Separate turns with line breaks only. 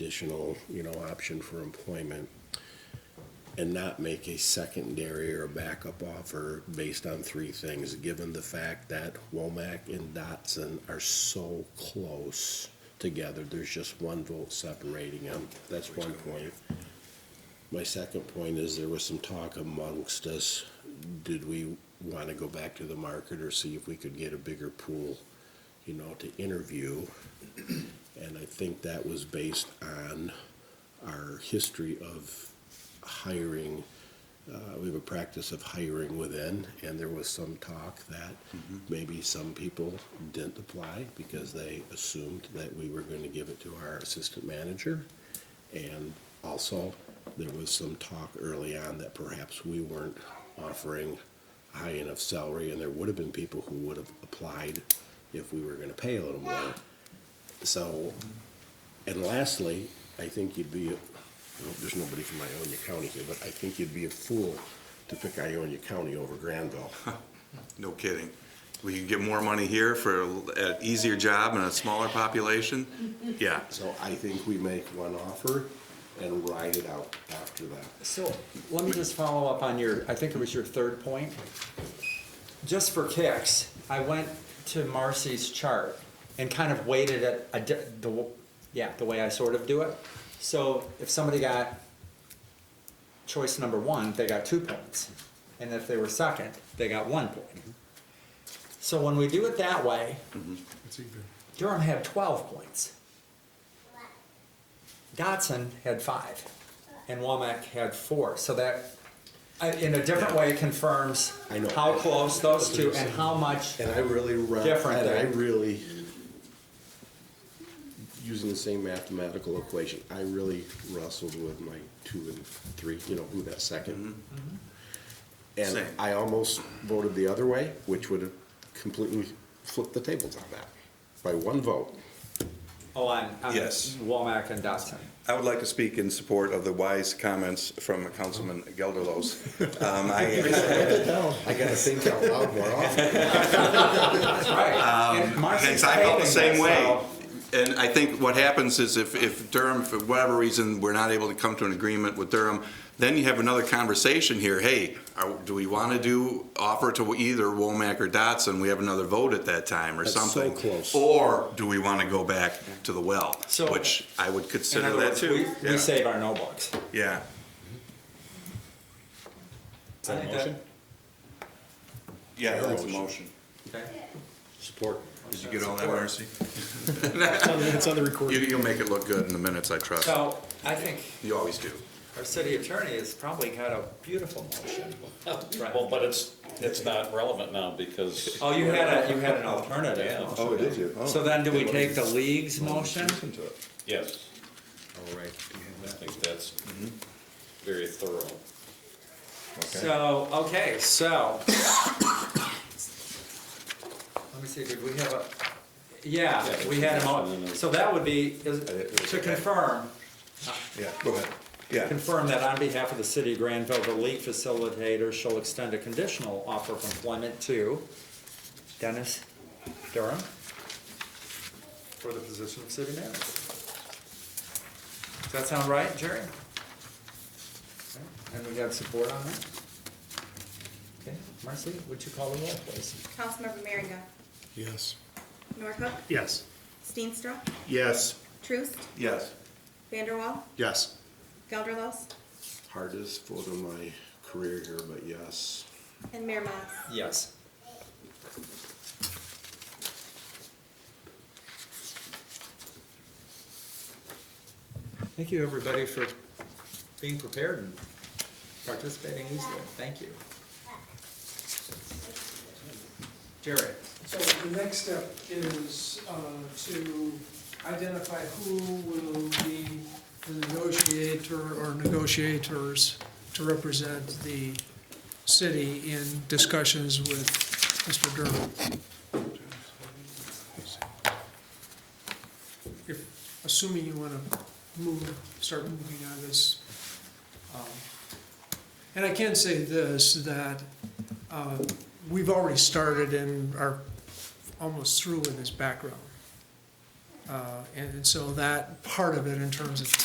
additional, you know, option for employment and not make a secondary or backup offer based on three things, given the fact that Womack and Dotson are so close together, there's just one vote separating them, that's one point. My second point is there was some talk amongst us, did we wanna go back to the market or see if we could get a bigger pool, you know, to interview? And I think that was based on our history of hiring, uh, we have a practice of hiring within, and there was some talk that maybe some people didn't apply because they assumed that we were gonna give it to our assistant manager. And also, there was some talk early on that perhaps we weren't offering a high enough salary, and there would have been people who would have applied if we were gonna pay a little more. So, and lastly, I think you'd be, well, there's nobody from Ionia County here, but I think you'd be a fool to pick Ionia County over Granville.
No kidding. We can get more money here for an easier job and a smaller population? Yeah.
So I think we make one offer and ride it out after that.
So, let me just follow up on your, I think it was your third point. Just for kicks, I went to Marcy's chart and kind of weighted it, a di- the, w- yeah, the way I sort of do it. So if somebody got choice number one, they got two points. And if they were second, they got one point. So when we do it that way,
Mm-hmm.
Durham had twelve points. Dotson had five, and Womack had four. So that, I- in a different way, confirms
I know.
how close those two and how much.
And I really, re-
Different
and I
than-
really, using the same mathematical equation, I really wrestled with my two and three, you know, who that second. Mm-hmm. And
Same.
I almost voted the other way, which would have completely flipped the tables on that by one vote.
Oh, on, on
Yes.
Womack and Dotson.
I would like to speak in support of the wise comments from Councilman Gelderlos. Um, I-
I gotta think out loud more often.
That's right. And
Thanks,
Marcy's
Um, I felt the
saving
same
this,
way.
so-
And I think what happens is if, if Durham, for whatever reason, we're not able to come to an agreement with Durham, then you have another conversation here, hey, are, do we wanna do, offer to either Womack or Dotson, we have another vote at that time or
That's so
something?
close.
Or do we wanna go back to the well,
So-
which I would
In
consider
other
that
words,
too.
we,
Yeah.
we save our no books.
Yeah,
Is that a motion?
yeah, that's a motion.
Support.
Did you get all that, Marcy? You, you'll make it look good in the minutes, I trust.
So, I think
You always do.
our city attorney has probably got a beautiful motion.
Well, but it's, it's not relevant now because.
Oh, you had a, you had an alternative.
Yeah.
Oh, did you?
So then do we take the league's motion?
Yes,
All right.
I think that's very thorough.
So, okay, so. Let me see, did we have a, yeah,
Yeah,
we had a
and
mo,
then a-
so that would be, is-
it was
to
okay.
confirm,
Yeah, go ahead. Yeah.
confirm that on behalf of the city of Granville, the league facilitator shall extend a conditional offer of employment to Dennis Durham for the position of city manager. Does that sound right, Jerry? Okay, And we have support on that? Okay, Marcy, would you call the roll, please?
Councilmember Merringa.
Yes.
Norhuck.
Yes.
Steenstra.
Yes.
Truist.
Yes.
Vanderwall.
Yes.
Gelderlos.
Hardest vote of my career here, but yes.
And Mayor Mas.
Yes. Thank you, everybody, for being prepared and participating easily. Thank you. Jerry?
So the next step is uh, to identify who will be the negotiator or negotiators to represent the city in discussions with Mr. Durham. If, assuming you want to move, start moving on this. um, And I can say this, that uh, we've already started and are almost through in his background. Uh, And and so that part of it in terms of